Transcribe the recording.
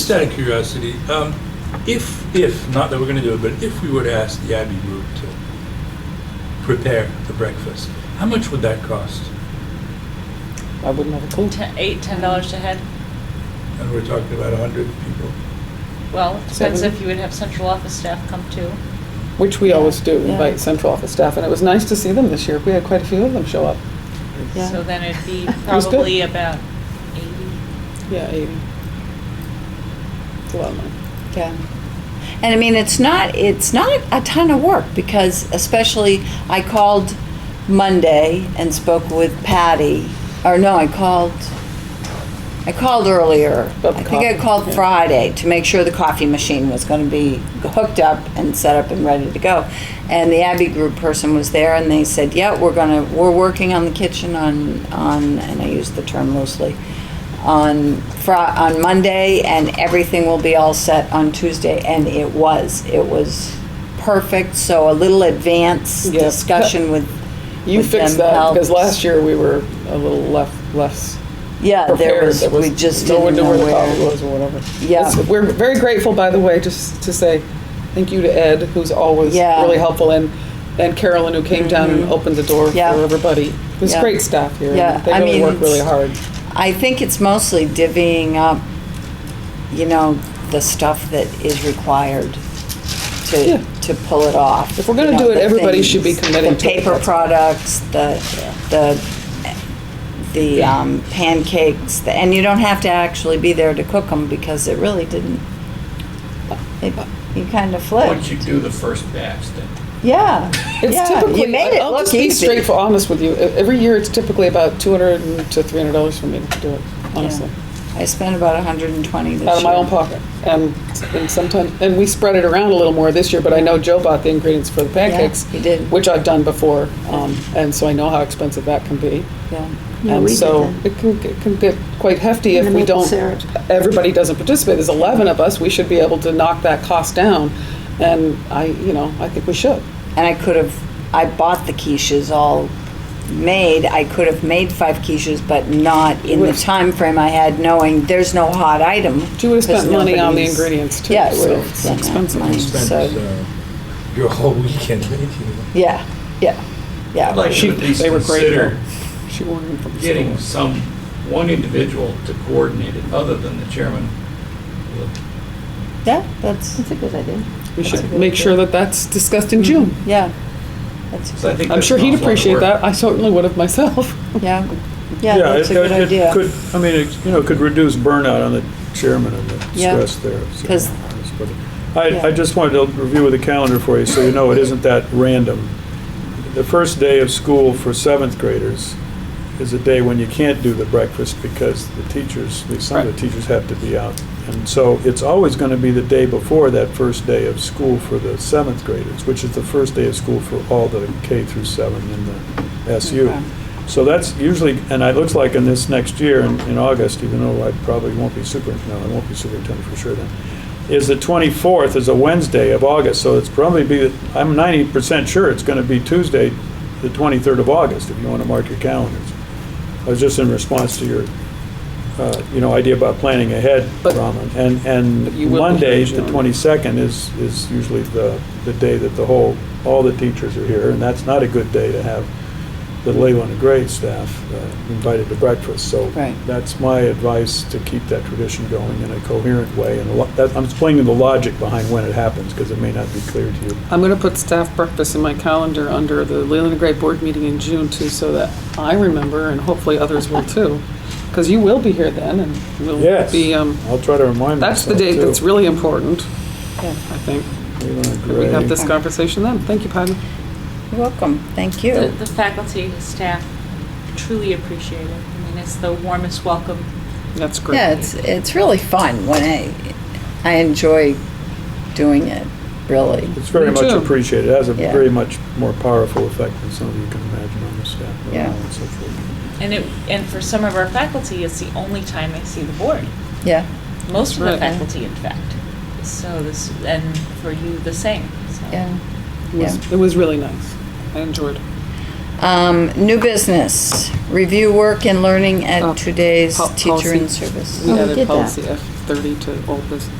Just out of curiosity, um, if, if, not that we're gonna do it, but if we were to ask the Abbey Group to prepare the breakfast, how much would that cost? I wouldn't have a clue. Ten, eight, ten dollars a head. And we're talking about a hundred people. Well, it depends Seven. if you would have central office staff come too. Which we always do, Yeah. invite central office staff, and it was nice to see them this year. We had quite a few of them show up. Yeah. So then it'd be was good. probably about eighty. Yeah, eighty. It's a lot of money. Yeah. And I mean, it's not, it's not a ton of work because especially I called Monday and spoke with Patty, or no, I called, I called earlier. About the I think I coffee, called yeah. Friday to make sure the coffee machine was going to be hooked up and set up and ready to go. And the Abbey Group person was there and they said, yeah, we're going to, we're working on the kitchen on, on, and I use the term loosely, on Fri- on Monday, and everything will be all set on Tuesday, and it was, it was perfect, so a little advanced Yeah. discussion with. You with fixed them that, because helps. last year we were a little left, less Yeah, Uh, there prepared. was, There was we just no one didn't knew know where the coffee where. was or whatever. Yeah. It's- We're very grateful, by the way, just to say thank you to Ed, who's always Yeah. Mm-hmm. really helpful, and, and Carolyn, who came down and opened the door for Yeah. everybody. There's Yeah. great staff here. and Yeah, They I really mean, work really it's- hard. I think it's mostly divvying up, you know, the stuff that is required Yeah. to, to pull it off. If we're gonna You know, do it, the everybody should be things, committed The to it, paper that's- products, the, the the um, pancakes, the- and you don't have to actually be there to cook them because it really didn't. It, you kind of Once you flipped. do the first batch, then Yeah. It's yeah, typically, you made it I'll look just be easy. straight for honest with you. E- Every year, it's typically about two hundred to three hundred dollars for me to do it. Honestly, I spent about 120 this year. out of my own pocket, and and sometimes and we spread it around a little more this year. But I know Joe bought the ingredients for the pancakes, he did. which I've done before, um, and so I know how expensive that can be. Yeah. Yeah, and we did so that. it can it can get quite hefty And if the we maple don't. syrup. Everybody doesn't participate. There's eleven of us. We should be able to knock that cost down, and I you know I think we should. and I could have, I bought the quiches all made. I could have made five quiches, but not in the Would've- time frame I had, knowing there's no hot item. But you would have 'cause spent money on the nobody's- ingredients too. Yeah, I so would have it's spent that expensive. money. You spent, So, uh, your whole weekend making it. yeah, yeah, yeah. I'd like She- to at least they were great, consider She ordered them from the getting store. some, one individual to coordinate it, other than the chairman. yeah, that's That's a good idea. We That's a should good make idea. sure that that's discussed in June. yeah, that's So I think I'm that's sure an he'd awful lot of appreciate work. that. I certainly would have myself. yeah, yeah. that's a it- good it idea. could- I mean, it, you know, could reduce burnout on the chairman and the Yeah. stress there. so, 'Cause- but I, I Yeah. just wanted to review the calendar for you, so you know it isn't that random. The first day of school for seventh graders is a day when you can't do the breakfast because the teachers, at least some of the teachers have to be out. And so it's always going to be the day before that first day of school for the seventh graders, which is the first day of school for all the K through seven in the SU. Okay. So that's usually, and it looks like in this next year, in, in August, even though I probably won't be super, no, I won't be superintendent for sure then, is the 24th is a Wednesday of August, so it's probably be, I'm 90% sure it's going to be Tuesday, the 23rd of August, if you want to mark your calendars. I was just in response to your, uh, you know, idea about planning ahead, But- Raman. And, But you and will be Monday, the judged on- 22nd is, is usually the, the day that the whole, all the teachers are here, and that's not a good day to have the Leyland and Gray staff uh, invited to breakfast. So Right. that's my advice to keep that tradition going in a coherent way. And a lo- that- I'm explaining the logic behind when it happens, because it may not be clear to you. I'm going to put staff breakfast in my calendar under the Leland and Gray board meeting in June too, so that I remember and hopefully others will too. Because you will be here then and we'll Yes, be, um, I'll try to remind that's myself, the date too. that's really important, Yeah. I think. Leyland and that We have Gray. this conversation then. Thank you, Patty. You're welcome. Thank The, you. the faculty, and staff truly appreciate it. I mean, it's the warmest welcome. That's great. Yeah, it's it's really fun when I I enjoy doing it. Really. It's very Me much too. appreciated. It has a Yeah. very much more powerful effect than some of you can imagine on the staff. level Yeah. and so forth. And it, and for some of our faculty, it's the only time they see the board. Yeah. Most of the Right. faculty, in fact. So this, and for you, the same. So Yeah. It was- it was really nice. I enjoyed it. Um, new business, review work and learning Oh, at today's po- teacher policy. in service. We Oh, we added did that. policy F. thirty to old business.